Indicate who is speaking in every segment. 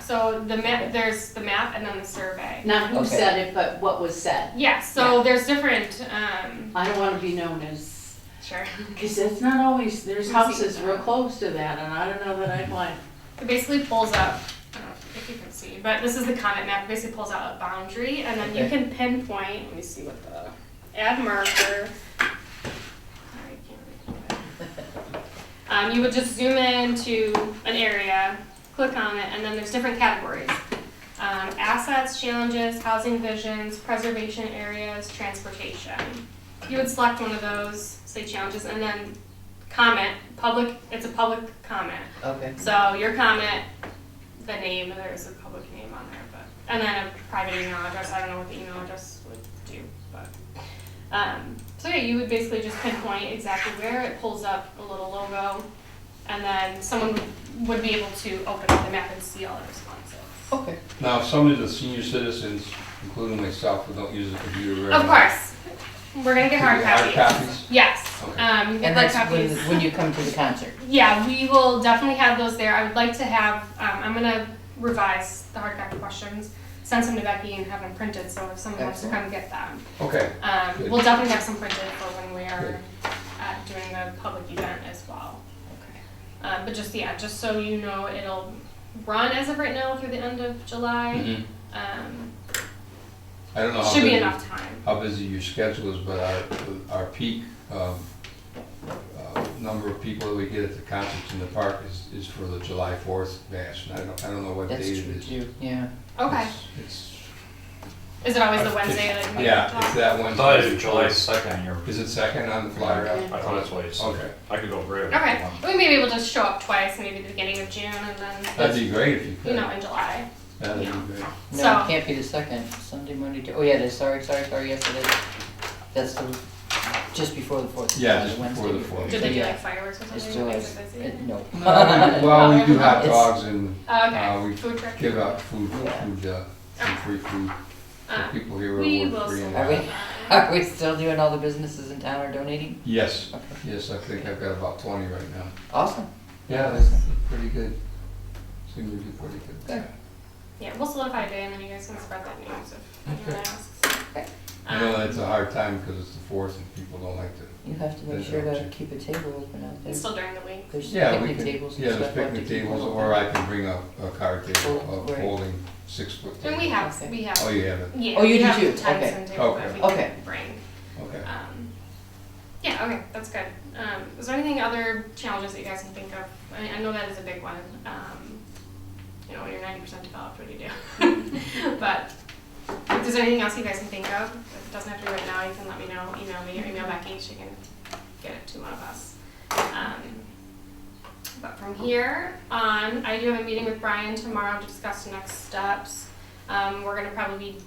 Speaker 1: So the map, there's the map and then the survey.
Speaker 2: Not who
Speaker 3: Okay.
Speaker 2: said it, but what was said.
Speaker 1: Yeah, so there's different, um,
Speaker 2: I don't wanna be known as,
Speaker 1: sure.
Speaker 2: cause that's not always, there's
Speaker 1: Receipt.
Speaker 2: houses real close to that, and I don't know that I'd want.
Speaker 1: It basically pulls up, I don't know if you can see, but this is the comment map. It basically pulls out a boundary and then you
Speaker 3: Okay.
Speaker 1: can pinpoint, let me see what the, add marker. Sorry, I can't read it. Um, you would just zoom in to an area, click on it, and then there's different categories. Um, assets, challenges, housing visions, preservation areas, transportation. You would select one of those, say challenges, and then comment, public, it's a public comment.
Speaker 3: Okay,
Speaker 1: So your comment, the name, there's a public name on there, but, and then a private email address, I don't know what the email address would do, but. Um, so yeah, you would basically just pinpoint exactly where, it pulls up a little logo, and then someone would be able to open up the map and see all the responses.
Speaker 3: okay.
Speaker 4: Now, some of the senior citizens, including myself, who don't use a computer very much.
Speaker 1: Of course, we're gonna get hard
Speaker 4: Hard
Speaker 1: copies.
Speaker 4: copies?
Speaker 1: Yes,
Speaker 4: Okay.
Speaker 1: um, you get hard
Speaker 3: And that's when,
Speaker 1: copies.
Speaker 3: when you come to the concert.
Speaker 1: Yeah, we will definitely have those there. I would like to have, um, I'm gonna revise the hard copy questions, send some to Becky and have them printed, so if someone wants to come get them.
Speaker 4: Okay,
Speaker 1: Um,
Speaker 4: Good.
Speaker 1: we'll definitely have some printed for when we are
Speaker 4: Good.
Speaker 1: uh, doing the public event as well. Uh, but just, yeah, just so you know, it'll run as of right now through the end of July.
Speaker 4: Mhm.
Speaker 1: Um,
Speaker 4: I don't know how
Speaker 1: Mm-hmm. should be
Speaker 4: busy,
Speaker 1: enough time.
Speaker 4: how busy your schedule is, but our, our peak, um, uh, number of people that we get at the concerts in the park is, is for the July fourth bash, and I don't, I don't know what date
Speaker 3: That's
Speaker 4: it
Speaker 3: true
Speaker 4: is.
Speaker 3: too, yeah.
Speaker 1: Okay,
Speaker 4: It's- It's,
Speaker 1: is it always the
Speaker 4: I've-
Speaker 1: Wednesday that you?
Speaker 4: yeah, it's that
Speaker 5: I thought it
Speaker 4: Wednesday.
Speaker 5: was July second, you're,
Speaker 4: Is it second on the flyer?
Speaker 2: Yeah.
Speaker 5: I thought that's what you
Speaker 4: Okay,
Speaker 5: said. I could go grab it. if you
Speaker 1: Okay,
Speaker 5: want.
Speaker 1: we maybe we'll just show up twice, maybe the beginning of June and then,
Speaker 4: that'd be great if you
Speaker 1: you
Speaker 4: could.
Speaker 1: know, in July.
Speaker 4: That'd
Speaker 1: yeah.
Speaker 4: be great.
Speaker 3: No,
Speaker 1: So-
Speaker 3: it can't be the second, Sunday, Monday, Tu- oh yeah, it is, sorry, sorry, sorry, yes it is. That's the, just before the fourth.
Speaker 4: Yeah,
Speaker 3: it's
Speaker 4: just
Speaker 3: Wednesday
Speaker 4: before the fourth.
Speaker 1: Did they do
Speaker 3: Yeah.
Speaker 1: like fireworks or
Speaker 3: It's
Speaker 1: something?
Speaker 3: still,
Speaker 1: Like,
Speaker 3: is-
Speaker 1: is it busy?
Speaker 3: it- no.
Speaker 4: Well, we do hot
Speaker 3: It's-
Speaker 4: dogs and
Speaker 1: Okay,
Speaker 4: uh, we
Speaker 1: food truck.
Speaker 4: give out food, food, uh, some
Speaker 1: Okay.
Speaker 4: free food
Speaker 1: Uh,
Speaker 4: for people here
Speaker 1: we
Speaker 4: who
Speaker 1: will
Speaker 4: work free and
Speaker 3: Are
Speaker 4: out.
Speaker 3: we, are we still doing all the businesses in town are donating?
Speaker 4: Yes,
Speaker 3: Okay.
Speaker 4: yes, I think I've got about twenty right now.
Speaker 3: Awesome.
Speaker 4: Yeah, that's pretty good. Seem to do pretty good.
Speaker 3: Good.
Speaker 1: Yeah, we'll solidify a day and then you guys can spread that news if anyone
Speaker 3: Okay.
Speaker 1: asks.
Speaker 4: I know
Speaker 1: Um,
Speaker 4: that's a hard time because it's the fourth and people don't like to,
Speaker 3: You have to make
Speaker 4: There's
Speaker 3: sure
Speaker 4: no
Speaker 3: to
Speaker 4: check.
Speaker 3: keep a table open out there.
Speaker 1: It's still during the week.
Speaker 3: There's
Speaker 4: yeah, we
Speaker 3: picnic
Speaker 4: can,
Speaker 3: tables and
Speaker 4: yeah,
Speaker 3: stuff.
Speaker 4: there's
Speaker 3: like to
Speaker 4: picnic
Speaker 3: keep them
Speaker 4: tables
Speaker 3: open.
Speaker 4: or I can bring a, a card table
Speaker 3: Oh,
Speaker 4: of
Speaker 3: right.
Speaker 4: holding six foot.
Speaker 1: And we
Speaker 4: table.
Speaker 1: have, we
Speaker 4: Oh,
Speaker 1: have,
Speaker 4: you have it,
Speaker 1: yeah.
Speaker 3: Oh, you
Speaker 1: we
Speaker 3: do
Speaker 1: have
Speaker 3: too.
Speaker 1: tents
Speaker 3: Okay.
Speaker 1: and tables that
Speaker 4: Okay.
Speaker 1: we can
Speaker 3: Okay.
Speaker 1: Bring.
Speaker 4: okay.
Speaker 1: Um, Yeah, okay, that's good. Um, is there anything other challenges that you guys can think of? I, I know that is a big one. Um, you know, when you're ninety percent developed, what do you do? but if there's anything else you guys can think of, if it doesn't have to be right now, you can let me know. Email me or email Becky. She can get it to one of us. Um, but from here on, I do have a meeting with Brian tomorrow to discuss the next steps. Um, we're gonna probably be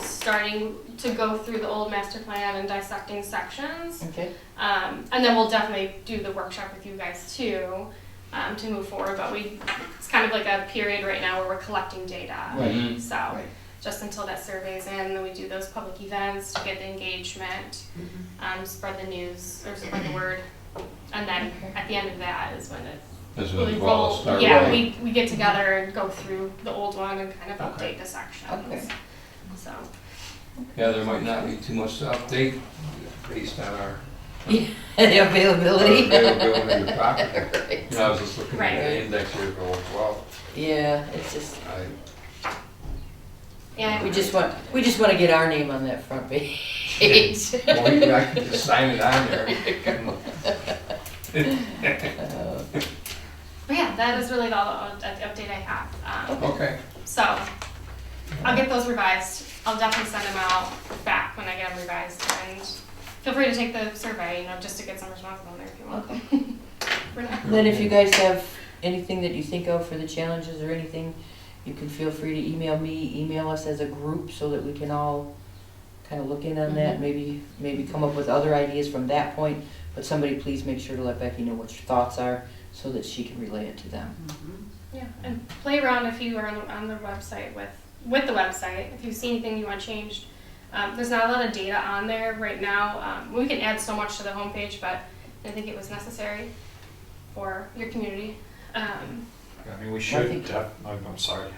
Speaker 1: starting to go through the old master plan and dissecting sections.
Speaker 3: Okay,
Speaker 1: Um, and then we'll definitely do the workshop with you guys too um, to move forward. But we, it's kind of like a period right now where we're collecting data.
Speaker 3: Right.
Speaker 4: Mhm.
Speaker 1: Mm-hmm. So
Speaker 3: Right.
Speaker 1: just until that survey is in, then we do those public events to get the engagement, um, spread the news or spread the word. And then at the end of that is when it
Speaker 4: That's what
Speaker 1: really
Speaker 4: we'll
Speaker 1: rolls.
Speaker 4: start
Speaker 1: Yeah,
Speaker 4: with.
Speaker 1: we, we get together and go through the old one and kind of
Speaker 4: Okay.
Speaker 1: update the sections.
Speaker 3: Okay.
Speaker 1: So
Speaker 4: Yeah, there might not be too much to update based on our
Speaker 3: the availability.
Speaker 4: availability of the property.
Speaker 3: Right.
Speaker 4: You know, I was just looking at
Speaker 1: Right.
Speaker 4: the index here going, well,
Speaker 3: Yeah, it's just,
Speaker 4: I,
Speaker 1: yeah,
Speaker 3: we just want, we just want to get our name on that front page.
Speaker 4: well, we- I can just sign it on there.
Speaker 3: Uh,
Speaker 1: But yeah, that is really all the, the update I have. Um,
Speaker 4: Okay,
Speaker 1: So I'll get those revised. I'll definitely send them out back when I get them revised. And feel free to take the survey, you know, just to get some responses on there if you want. For now.
Speaker 3: Then if you guys have anything that you think of for the challenges or anything, you can feel free to email me, email us as a group so that we can all kind of look in on that, maybe, maybe come up with other ideas from that point. But somebody please make sure to let Becky know what your thoughts are so that she can relay it to them.
Speaker 1: Yeah, and play around if you are on, on the website with with the website. If you see anything you want changed, um, there's not a lot of data on there right now. Um, we can add so much to the homepage, but I think it was necessary for your community. Um,
Speaker 5: I mean, we
Speaker 3: I
Speaker 5: should,
Speaker 3: think-
Speaker 5: def- I'm I'm sorry,